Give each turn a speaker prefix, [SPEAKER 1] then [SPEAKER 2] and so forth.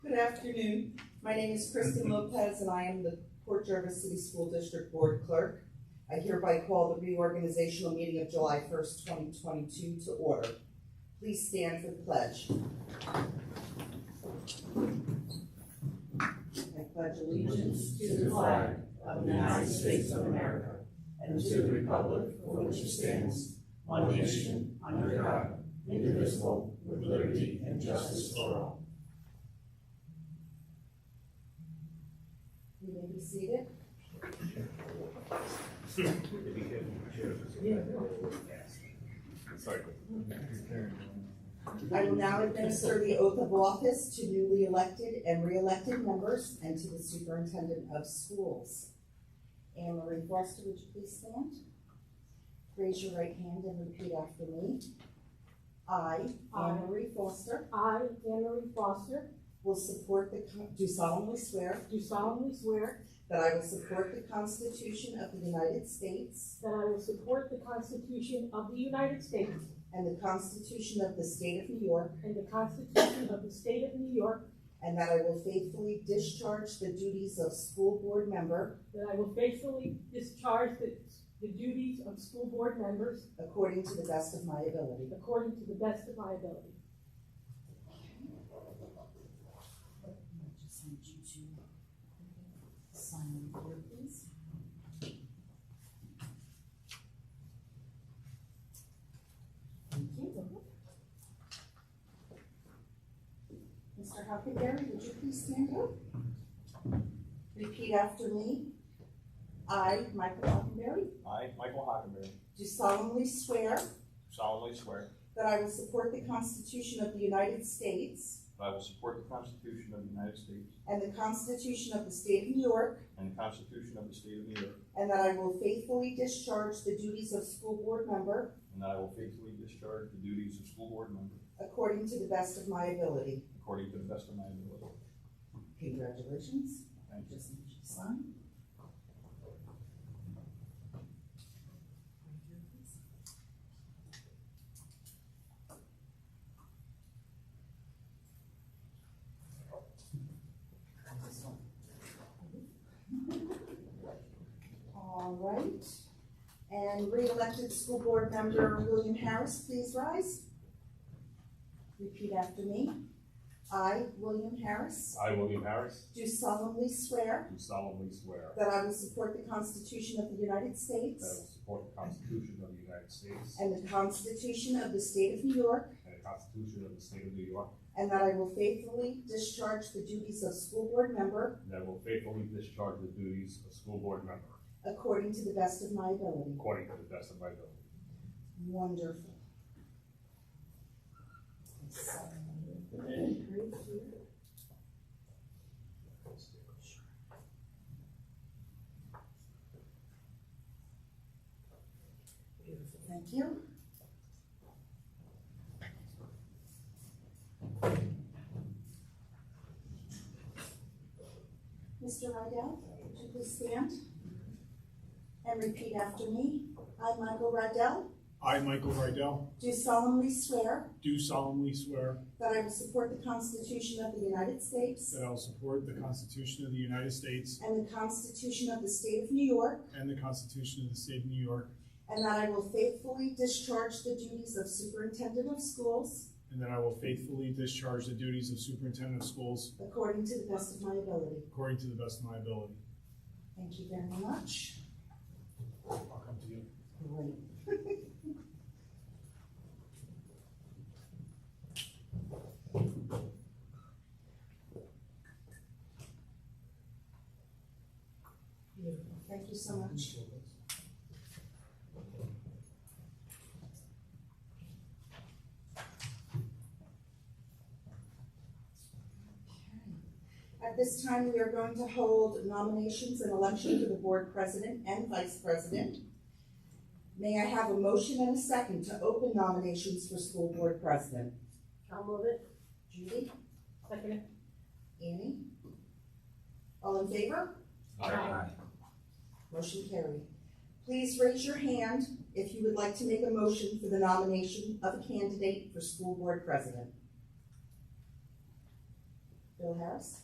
[SPEAKER 1] afternoon. My name is Kristen Lopez and I am the Port Jervis City School District Board Clerk. I hereby call the reorganizational meeting of July first, twenty twenty-two to order. Please stand for the pledge. I pledge allegiance to the flag
[SPEAKER 2] of the United States of America and to the republic for which it stands, one nation, under God, indivisible, with liberty and justice for all.
[SPEAKER 1] You may be seated. I will now administer the oath of office to newly elected and re-elected members and to the superintendent of schools. Anne Marie Foster, would you please stand? Raise your right hand and repeat after me. I,
[SPEAKER 3] I.
[SPEAKER 1] Anne Marie Foster,
[SPEAKER 3] I, Anne Marie Foster,
[SPEAKER 1] will support the, con- do solemnly swear
[SPEAKER 3] do solemnly swear
[SPEAKER 1] that I will support the Constitution of the United States
[SPEAKER 3] that I will support the Constitution of the United States
[SPEAKER 1] and the Constitution of the State of New York,
[SPEAKER 3] and the Constitution of the State of New York,
[SPEAKER 1] and that I will faithfully discharge the duties of school board member
[SPEAKER 3] that I will faithfully discharge the the duties of school board members
[SPEAKER 1] According to the best of my ability.
[SPEAKER 3] according to the best of my ability.
[SPEAKER 1] I just need you to sign here, please. Thank you. Mr. Huckleberry, would you please stand up? Repeat after me. I, Michael Huckleberry,
[SPEAKER 4] I, Michael Hockenberry,
[SPEAKER 1] do solemnly swear
[SPEAKER 4] solemnly swear
[SPEAKER 1] that I will support the Constitution of the United States
[SPEAKER 4] that I will support the Constitution of the United States
[SPEAKER 1] and the Constitution of the State of New York,
[SPEAKER 4] and the Constitution of the State of New York,
[SPEAKER 1] And that I will faithfully discharge the duties of school board member
[SPEAKER 4] and that I will faithfully discharge the duties of school board member
[SPEAKER 1] according to the best of my ability.
[SPEAKER 4] according to the best of my ability.
[SPEAKER 1] Congratulations.
[SPEAKER 4] Thank you.
[SPEAKER 1] Just need you to sign. All right. And re-elected school board member William Harris, please rise. Repeat after me. I, William Harris,
[SPEAKER 5] I, William Harris,
[SPEAKER 1] do solemnly swear
[SPEAKER 5] do solemnly swear
[SPEAKER 1] that I will support the Constitution of the United
[SPEAKER 5] that I
[SPEAKER 1] States
[SPEAKER 5] will support the Constitution of the United States
[SPEAKER 1] and the Constitution of the State of New York,
[SPEAKER 5] and the Constitution of the State of New York,
[SPEAKER 1] and that I will faithfully discharge the duties of school board member
[SPEAKER 5] and that I will faithfully discharge the duties of school board member
[SPEAKER 1] according to the best of my ability.
[SPEAKER 5] according to the best of my ability.
[SPEAKER 1] Wonderful. Beautiful, thank you. Mr. Rydell, would you please stand and repeat after me? I, Michael Rydell,
[SPEAKER 6] I, Michael Rydell,
[SPEAKER 1] do solemnly swear
[SPEAKER 6] do solemnly swear
[SPEAKER 1] that I will support the Constitution of the United States
[SPEAKER 6] that I will support the Constitution of the United States
[SPEAKER 1] and the Constitution of the State of New York,
[SPEAKER 6] and the Constitution of the State of New York,
[SPEAKER 1] and that I will faithfully discharge the duties of Superintendent of Schools
[SPEAKER 6] and that I will faithfully discharge the duties of Superintendent of Schools
[SPEAKER 1] according to the best of my ability.
[SPEAKER 6] according to the best of my ability.
[SPEAKER 1] Thank you very much.
[SPEAKER 6] I'll come to you.
[SPEAKER 1] Great. Beautiful. Thank you so much. Okay. At this time, we are going to hold nominations and election for the board president and vice president. May I have a motion and a second to open nominations for school board president?
[SPEAKER 3] I'll move it.
[SPEAKER 1] Judy,
[SPEAKER 3] Second it.
[SPEAKER 1] Annie? All in favor?
[SPEAKER 3] Aye.
[SPEAKER 1] Motion carried. Please raise your hand if you would like to make a motion for the nomination of a candidate for school board president. Bill Harris?